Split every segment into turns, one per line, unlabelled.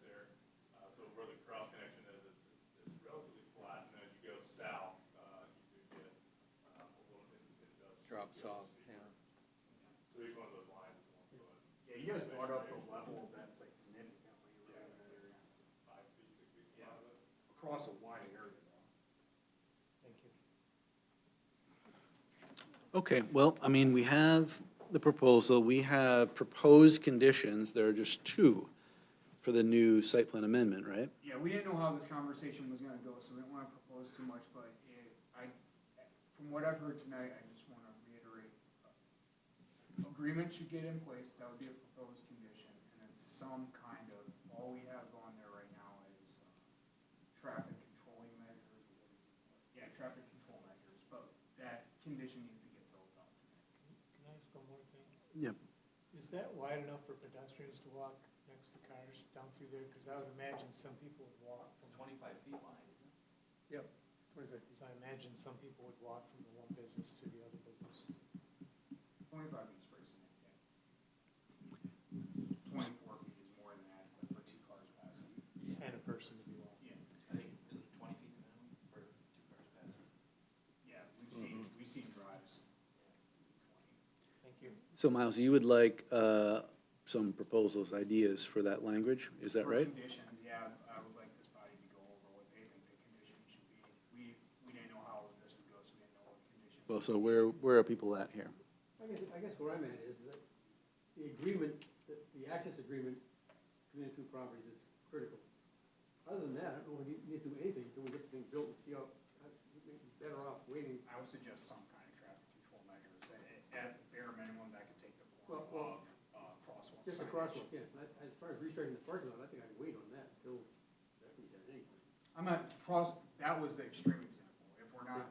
Uh, uh,
drops off, yeah.
So each one of those lines is one foot,
Yeah, you guys brought up the level that's like significantly, rather than
five feet, six feet.
Yeah. across a wide area though.
Okay, well, I mean, we have the proposal, we have proposed conditions, there are just two for the new site plan amendment, right?
Yeah, we didn't know how this conversation was gonna go, so we didn't wanna propose too much, but it, I, from what I've heard tonight, I just wanna reiterate. uh, Agreement should get in place, that would be a proposed condition, and it's some kind of, all we have on there right now is uh, traffic controlling measures. Yeah, traffic control measures, but that condition needs to get built up tonight.
Can I ask one more thing?
Yep.
Is that wide enough for pedestrians to walk next to cars down through there? Because I would imagine some people would walk from. Twenty-five feet wide, isn't it? Yep. What is it? So I imagine some people would walk from the one business to the other business.
Twenty-five feet is pretty significant. Twenty-four feet is more than adequate for two cars passing.
And a person to be walking.
Yeah,
I think, is it twenty feet the minimum for two cars passing?
yeah, we've seen,
Mm-hmm.
we've seen drives.
Thank you.
So Miles, you would like uh, some proposals, ideas for that language, is that
For
right?
Conditions, yeah, I would like this body to go over what they think the conditions should be. We, we didn't know how this would go, so we didn't know what conditions.
Well, so where, where are people at here?
I guess, I guess where I'm at is that the agreement, the, the access agreement between the two properties is critical. Other than that, I don't know if we need to do anything until we get the thing built and see how, we'd be better off waiting.
I would suggest some kind of traffic control measures. At- At bare minimum, that could take the form
Well, well,
of, uh, crosswalk
Just a
signage.
crosswalk, yeah, but as far as restarting the parking lot, I think I'd wait on that until that can be done anyway.
I'm not, pros- that was the extreme example, if we're not,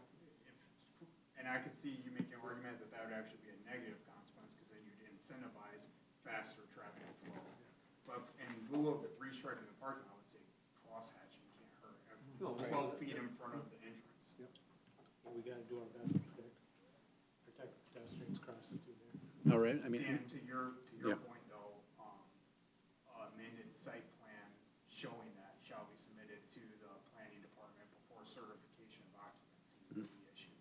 if, and I could see you making an argument that that would actually be a negative consequence, because then you'd incentivize faster traffic flow. But in lieu of restriping the parking, I would say crosshatching can't hurt, uh,
No,
twelve feet in front of the entrance.
But we gotta do our best to protect, protect pedestrians crossing through there.
All right, I mean,
Dan, to your, to your
Yeah.
point though, um, amended site plan showing that shall be submitted to the planning department before certification of occupancy would be issued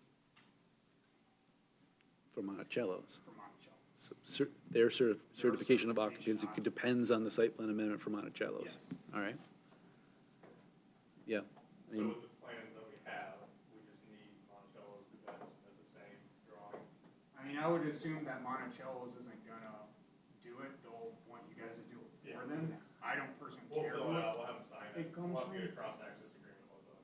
for Monticello's,
for Monticello.
So cer- their certi- certification of occupancy depends on the site plan amendment for Monticello's,
Yes.
all right? Yeah, I
So
mean,
with the plans that we have, we just need Monticello's to best at the same drawing.
I mean, I would assume that Monticello's isn't gonna do it, they'll want you guys to do it for
Yeah.
them. I don't personally
We'll
care.
fill it out, we'll have them sign
It
it,
comes
we'll have to get
from-
a cross-access agreement with them.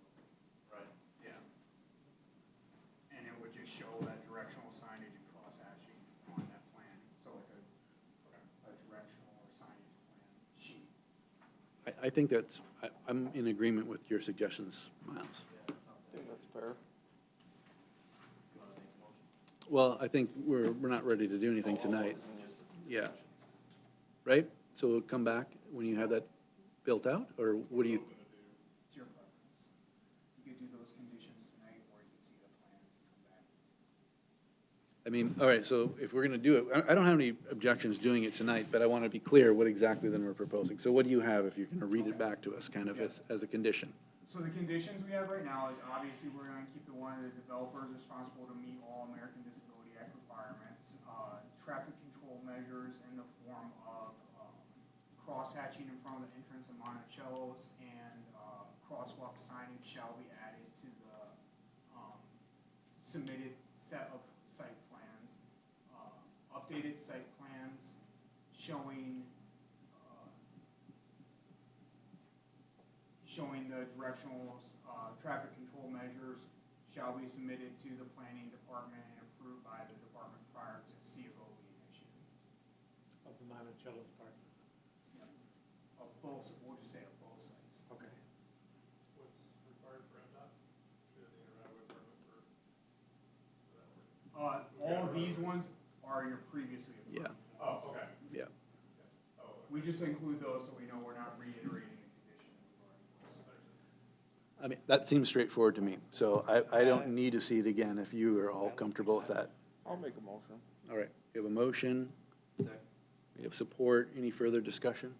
Right.
Yeah. And it would just show that directional signage and cross hatching on that plan, so like a, a directional or signage plan sheet.
I, I think that's, I, I'm in agreement with your suggestions, Miles.
You wanna make a motion?
Well, I think we're, we're not ready to do anything
Oh, oh, oh,
tonight,
this is just a
Yeah.
discussion.
right? So we'll come back when you have that built out, or what do you,
It's your preference. You could do those conditions tonight, or you could see the plans and come back.
I mean, all right, so if we're gonna do it, I, I don't have any objections doing it tonight, but I wanna be clear what exactly then we're proposing. So what do you have if you're gonna read it back to us, kind of as, as a condition?
So the conditions we have right now is obviously we're gonna keep the one, the developer is responsible to meet all American Disability Act requirements. Uh, traffic control measures in the form of, um, crosshatching in front of the entrance of Monticello's and, uh, crosswalk signage shall be added to the, um, submitted set of site plans. Uh, Updated site plans showing, uh, showing the directional uh, traffic control measures shall be submitted to the planning department and approved by the department prior to CFO being issued.
Of the Monticello's parking.
Of both, we'll just say of both sites.
Okay.
What's required for MDOT? Do they need a right-of-way permit for? for that work?
Uh, All of these ones are your previously
Yeah,
approved.
Oh, okay,
yeah.
oh,
We just include those so we know we're not reiterating the conditions. we've already placed.
I mean, that seems straightforward to me, so I, I don't need to see it again if you are all comfortable with that.
I'll make a motion.
All right, we have a motion,
Second.
we have support, any further discussion?